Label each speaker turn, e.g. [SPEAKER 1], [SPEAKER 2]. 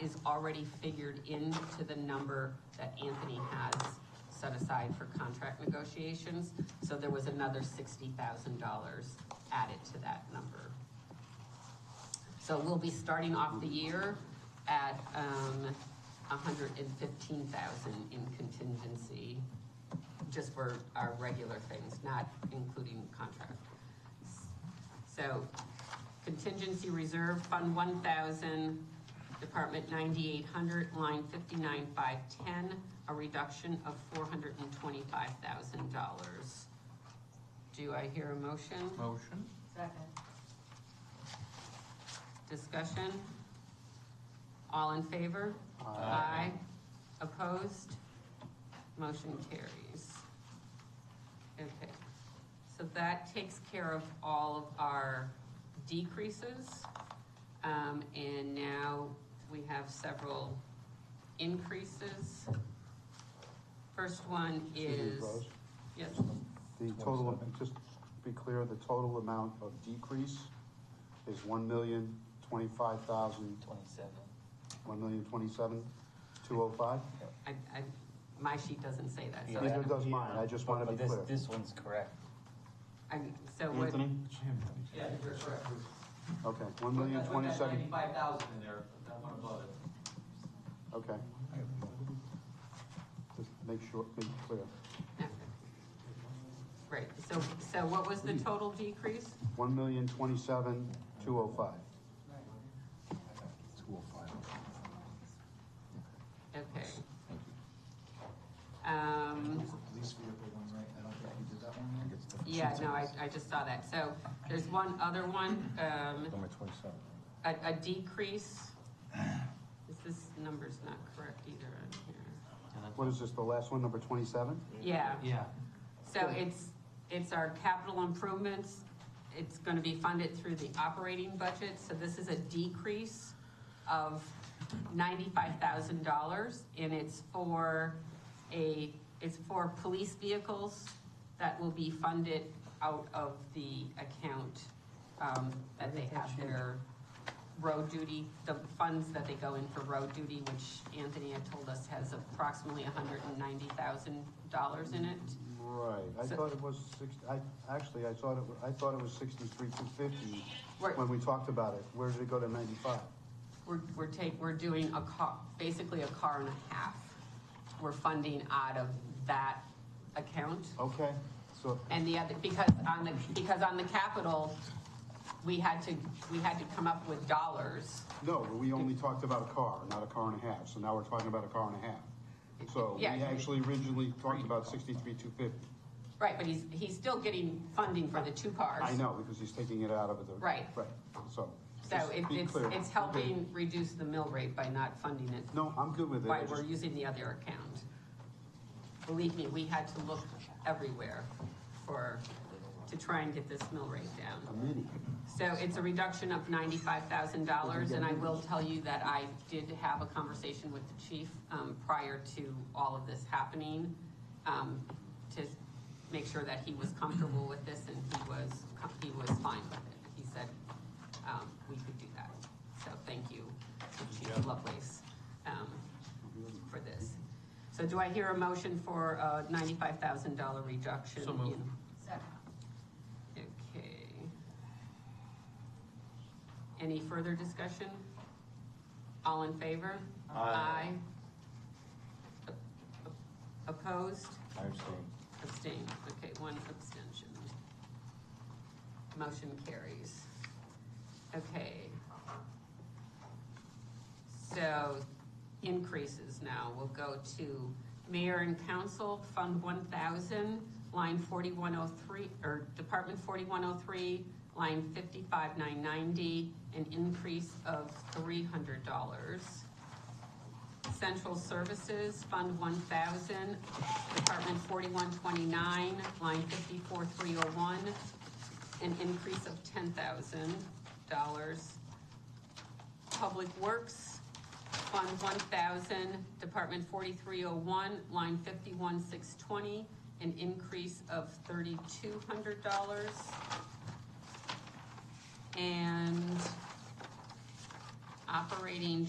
[SPEAKER 1] is already figured into the number that Anthony has set aside for contract negotiations. So there was another sixty thousand dollars added to that number. So we'll be starting off the year at, um, hundred and fifteen thousand in contingency, just for our regular things, not including contract. So contingency reserve, Fund one thousand, Department ninety-eight hundred, line fifty-nine five ten, a reduction of four hundred and twenty-five thousand dollars. Do I hear a motion?
[SPEAKER 2] Motion?
[SPEAKER 3] Second.
[SPEAKER 1] Discussion? All in favor? Opposed? Motion carries. Okay, so that takes care of all of our decreases. Um, and now we have several increases. First one
[SPEAKER 4] Excuse
[SPEAKER 1] is,
[SPEAKER 4] me, Rose.
[SPEAKER 1] yes,
[SPEAKER 4] The total, and just to be clear, the total amount of decrease is one million, twenty-five thousand,
[SPEAKER 2] Twenty-seven.
[SPEAKER 4] one million, twenty-seven, two oh five?
[SPEAKER 1] I, I, my sheet doesn't say that, so,
[SPEAKER 4] Neither does mine, I just want to
[SPEAKER 2] But
[SPEAKER 4] be
[SPEAKER 2] this,
[SPEAKER 4] clear.
[SPEAKER 2] this one's correct.
[SPEAKER 1] I, so what,
[SPEAKER 5] Yeah, you're correct.
[SPEAKER 4] Okay, one million, twenty-seven,
[SPEAKER 5] Ninety-five thousand in there, that one above it.
[SPEAKER 4] okay. Just make sure, make it clear.
[SPEAKER 1] right, so, so what was the total decrease?
[SPEAKER 4] One million, twenty-seven, two oh five.
[SPEAKER 1] Okay. Um,
[SPEAKER 6] Police vehicle one, right? I don't think you did that one yet.
[SPEAKER 1] yeah, no, I, I just saw that. So there's one other one, um,
[SPEAKER 6] Number twenty-seven.
[SPEAKER 1] a, a decrease. Is this number's not correct either on
[SPEAKER 4] What is this, the last one, number twenty-seven?
[SPEAKER 1] here? Yeah,
[SPEAKER 2] Yeah.
[SPEAKER 1] so it's, it's our capital improvements. It's gonna be funded through the operating budget, so this is a decrease of ninety-five thousand dollars, and it's for a, it's for police vehicles that will be funded out of the account, um, that they have their road duty, the funds that they go in for road duty, which Anthony had told us has approximately hundred and ninety thousand dollars in it.
[SPEAKER 4] Right, I
[SPEAKER 1] So-
[SPEAKER 4] thought it was six, I, actually, I thought it, wa- I thought it was sixty-three, two fifty
[SPEAKER 1] Right.
[SPEAKER 4] when we talked about it. Where did it go to ninety-five?
[SPEAKER 1] We're, we're take, we're doing a car, basically a car and a half. We're funding out of that account.
[SPEAKER 4] Okay, so,
[SPEAKER 1] And the other, because on the, because on the capital, we had to, we had to come up with dollars.
[SPEAKER 4] no, we only talked about a car, not a car and a half, so now we're talking about a car and a half. So we
[SPEAKER 1] Yeah.
[SPEAKER 4] actually originally talked about sixty-three, two fifty.
[SPEAKER 1] Right, but he's, he's still getting funding for the two cars.
[SPEAKER 4] I know, because he's taking it out of the.
[SPEAKER 1] Right.
[SPEAKER 4] Right, so.
[SPEAKER 1] So
[SPEAKER 4] just
[SPEAKER 1] it-
[SPEAKER 4] be
[SPEAKER 1] it's,
[SPEAKER 4] clear.
[SPEAKER 1] it's helping reduce the mill rate by not funding it,
[SPEAKER 4] No, I'm good with it. I
[SPEAKER 1] by we're
[SPEAKER 4] just-
[SPEAKER 1] using the other account. Believe me, we had to look everywhere for, to try and get this mill rate down.
[SPEAKER 4] A mini.
[SPEAKER 1] So it's a reduction of ninety-five thousand dollars, and I will tell you that I did have a conversation with the chief, um, prior to all of this happening, um, to make sure that he was comfortable with this, and he was, he was fine with it. He said, um, we could do that. So thank you, Chief Lovelace, um, for this. So do I hear a motion for a ninety-five thousand dollar reduction?
[SPEAKER 2] So moved.
[SPEAKER 1] in-
[SPEAKER 3] Second.
[SPEAKER 1] Okay. Any further discussion? All in favor?
[SPEAKER 2] Aye.
[SPEAKER 1] Aye. Opposed?
[SPEAKER 6] I abstain.
[SPEAKER 1] Abstained. Okay, one abstention. Motion carries. Okay. So increases now. We'll go to mayor and council, Fund one thousand, line forty-one oh three, or Department forty-one oh three, line fifty-five nine ninety, an increase of three hundred dollars. Central Services, Fund one thousand, Department forty-one twenty-nine, line fifty-four three oh one, an increase of ten thousand dollars. Public Works, Fund one thousand, Department forty-three oh one, line fifty-one six twenty, an increase of thirty-two hundred dollars. And operating